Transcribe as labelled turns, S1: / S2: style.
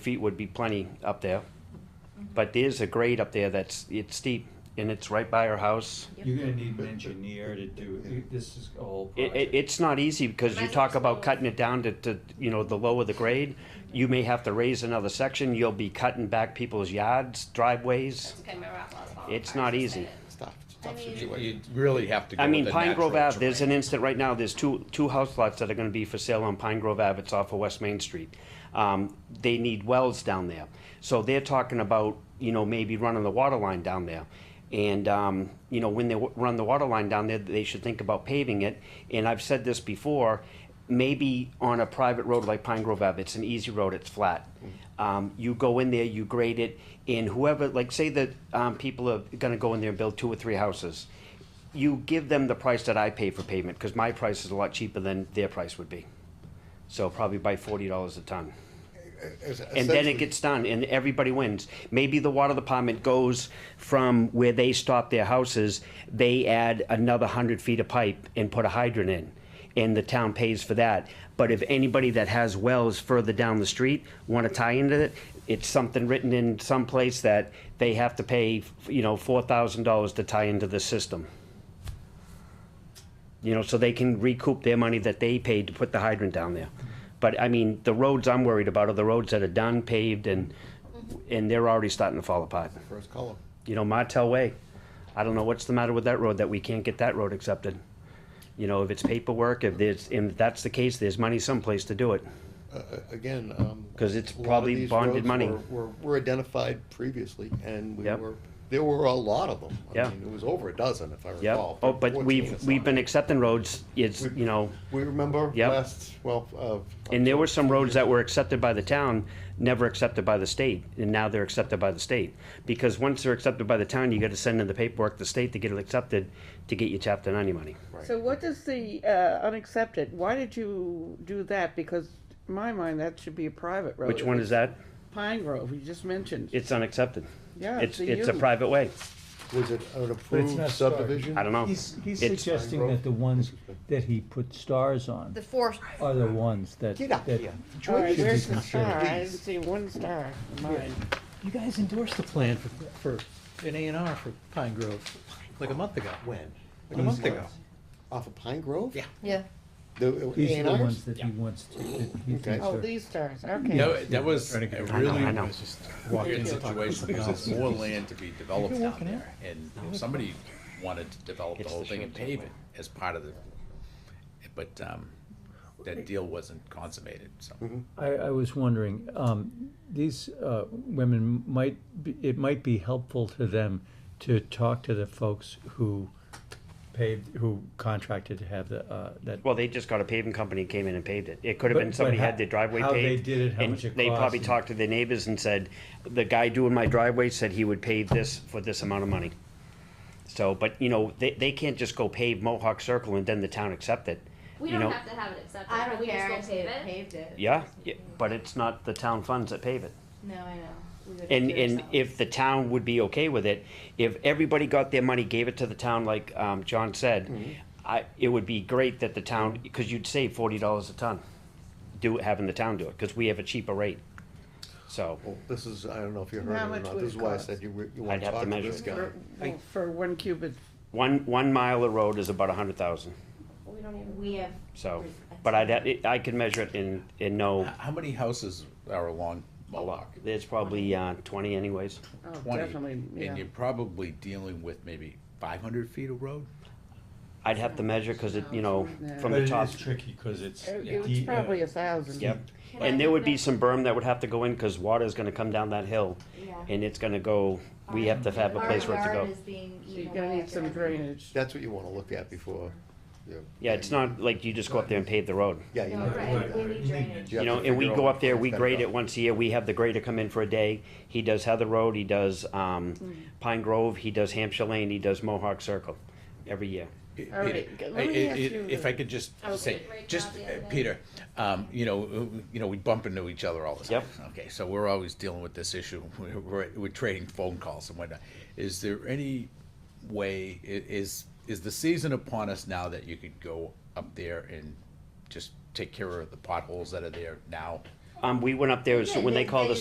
S1: feet would be plenty up there. But there's a grade up there that's, it's steep and it's right by our house.
S2: You're gonna need an engineer to do, this is a whole
S1: It, it,
S2: project.
S1: it's not easy because you talk about cutting it down to, to, you know, the lower the grade. You may have to raise another section. You'll be cutting back people's yards, driveways.
S3: It's okay, my rock was falling
S1: It's
S3: apart,
S1: not
S3: just
S1: easy.
S3: saying.
S4: tough, it's a tough
S3: I mean-
S4: situation. You really have to go
S1: I
S4: with
S1: mean,
S4: the
S1: Pine Grove
S4: natural
S1: Ave, there's an
S4: terrain.
S1: instant right now, there's two, two house lots that are gonna be for sale on Pine Grove Ave, it's off of West Main Street. Um, they need wells down there, so they're talking about, you know, maybe running the water line down there. And, um, you know, when they w- run the water line down there, they should think about paving it, and I've said this before, maybe on a private road like Pine Grove Ave, it's an easy road, it's flat. Um, you go in there, you grade it, and whoever, like, say that, um, people are gonna go in there and build two or three houses you give them the price that I pay for pavement, because my price is a lot cheaper than their price would be. So probably by forty dollars a ton. And
S4: Es-
S1: then
S4: essentially-
S1: it gets done and everybody wins. Maybe the water department goes from where they stop their houses, they add another hundred feet of pipe and put a hydrant in. And the town pays for that. But if anybody that has wells further down the street wanna tie into it, it's something written in some place that they have to pay, you know, four thousand dollars to tie into the system. You know, so they can recoup their money that they paid to put the hydrant down there. But I mean, the roads I'm worried about are the roads that are done, paved, and, and they're already starting to fall apart.
S4: First column.
S1: You know, Martel Way, I don't know what's the matter with that road, that we can't get that road accepted. You know, if it's paperwork, if there's, and if that's the case, there's money someplace to do it.
S4: Uh, uh, Again, um.
S1: 'Cause it's
S4: a lot of
S1: probably
S4: these
S1: bonded
S4: roads
S1: money.
S4: were- Were, were identified previously and we
S1: Yep.
S4: were, there were a lot of them. I
S1: Yeah.
S4: mean, It was over a dozen, if I
S1: Yep,
S4: recall.
S1: oh, but
S4: 14 or
S1: we've, we've
S4: something.
S1: been accepting roads, it's,
S4: We-
S1: you know,
S4: We remember
S1: Yep.
S4: last, well, uh.
S1: and there were some roads that were accepted by the town, never accepted by the state, and now they're accepted by the state. Because once they're accepted by the town, you gotta send in the paperwork to the state to get it accepted, to get your chapter ninety money.
S5: So what does the uh, unaccepted, why did you do that? Because in my mind, that should be a private road.
S1: Which one is that?
S5: Pine Grove, you just mentioned.
S1: It's unaccepted.
S5: Yeah,
S1: It's,
S5: it's a
S1: it's a
S5: U.
S1: private way,
S4: Was it an
S6: not
S4: approved
S6: started.
S4: subdivision?
S1: I don't know.
S6: He's, he's
S1: um, It's-
S6: suggesting that the ones that he put stars on
S3: The four,
S6: are the ones that,
S4: Get up
S6: that-
S4: here.
S5: All right,
S4: George is
S5: where's
S4: just
S5: the star? I
S4: concerned.
S5: didn't see one star in mine.
S7: You guys endorsed the plan for, for an A and R for Pine Grove, like a month ago.
S4: When?
S7: Like a month ago.
S4: Off of Pine Grove?
S7: Yeah.
S3: yeah.
S4: The
S6: these are the
S4: A&Rs?
S6: ones that he wants to, that he
S4: Okay.
S6: thinks
S5: Oh,
S6: are.
S5: these stars, okay.
S8: That, that was a
S1: I know, I
S8: really
S1: know.
S8: weird situation because there's more land to be developed
S7: You're
S8: down
S7: walking
S8: there. And if somebody wanted to develop the
S1: It's
S8: whole
S1: the
S8: thing and
S1: short
S8: pave it as part of the, but, um, that deal wasn't consummated, so.
S6: I, I was wondering, um, these, uh, women might, be- it might be helpful to them to talk to the folks who paved, who contracted to have the, uh, that.
S1: Well, they just got a paving company came in and paved it. It could have
S6: But-
S1: been
S6: but
S1: somebody
S6: how-
S1: had their driveway
S6: how they
S1: paved.
S6: did it, how
S1: and
S6: much it
S1: They
S6: cost
S1: probably
S6: and-
S1: talked to their neighbors and said, the guy doing my driveway said he would pave this for this amount of money. So, but you know, they, they can't just go pave Mohawk Circle and then the town accept it.
S9: We
S1: You
S9: don't
S1: know-
S9: have to have it accepted.
S3: I don't
S9: we
S3: care, I
S9: Just go pave it.
S3: paved it.
S1: Yeah, yeah, but it's not the town funds that pave it.
S3: No, I know. We would
S1: And,
S3: do
S1: and
S3: ourselves.
S1: if the town would be okay with it, if everybody got their money, gave it to the town like, um, John said, I, it would be great that the town, because you'd save forty dollars a ton, do, having the town do it, because we have a cheaper rate. So,
S4: Well, this is, I don't know if you heard
S5: How
S4: it or
S5: much
S4: not,
S5: would
S4: this
S5: it
S4: is why I
S5: cost?
S4: said you, were- you wanna
S1: I'd have to
S4: talk to
S1: measure
S4: this
S1: it.
S4: guy.
S5: For- well, For one cubit,
S1: one, one mile of road is about a hundred thousand,
S3: We don't even, we have.
S1: so, but I'd, ha- it- I could measure it and, and
S8: H-
S1: know,
S8: How many houses are along Mohawk?
S1: there's probably, uh, twenty anyways.
S5: oh,
S8: Twenty,
S5: definitely, yeah.
S8: and you're probably dealing with maybe five hundred feet of road?
S1: I'd have to measure, cause it, you know, from
S6: But
S1: the
S6: it
S1: top.
S6: is tricky, cause it's.
S5: It-
S6: the,
S5: It's
S6: uh,
S5: probably a thousand.
S1: Yep,
S9: Can I
S1: and there would be
S9: make-
S1: some berm that would have to go in, cause water's gonna come down that hill.
S3: Yeah.
S1: and it's gonna go, we have to have a
S3: Our
S1: place for it to
S3: yard
S1: go.
S3: is being
S5: So
S3: eaten
S5: you're gonna
S3: away
S5: need some
S3: every-
S5: drainage.
S4: That's what you wanna look at before. you-
S1: Yeah, it's not like you just go up there and pave the road.
S4: Yeah, you
S3: No,
S4: might wanna
S3: right,
S4: do
S3: we
S4: that.
S3: need drainage.
S4: have
S1: You know,
S4: to
S1: and we
S4: figure out
S1: go
S4: what
S1: up there, we
S4: it's
S1: grade
S4: gonna
S1: it once a year, we have the grader come in for a day. He does Heather Road, he does, um,
S3: Mm.
S1: Pine Grove, he does Hampshire Lane, he does Mohawk Circle every year.
S8: It-
S5: All right,
S8: it-
S5: let
S8: I-
S5: me
S8: I-
S5: ask
S8: it-
S5: you
S8: If
S5: the-
S8: I could just
S9: Okay.
S8: say,
S9: Right
S8: just,
S9: now, the
S8: uh,
S9: other day.
S8: Peter, um, you know, uh, you know, we bump into each other all the time. Okay, so we're always dealing with this issue, we're, we're- we're trading phone calls and whatnot. Is there any way, i- is, is the season upon us now that you could go up there and just take care of the potholes that are there now?
S1: Um, we went up there, so when they called us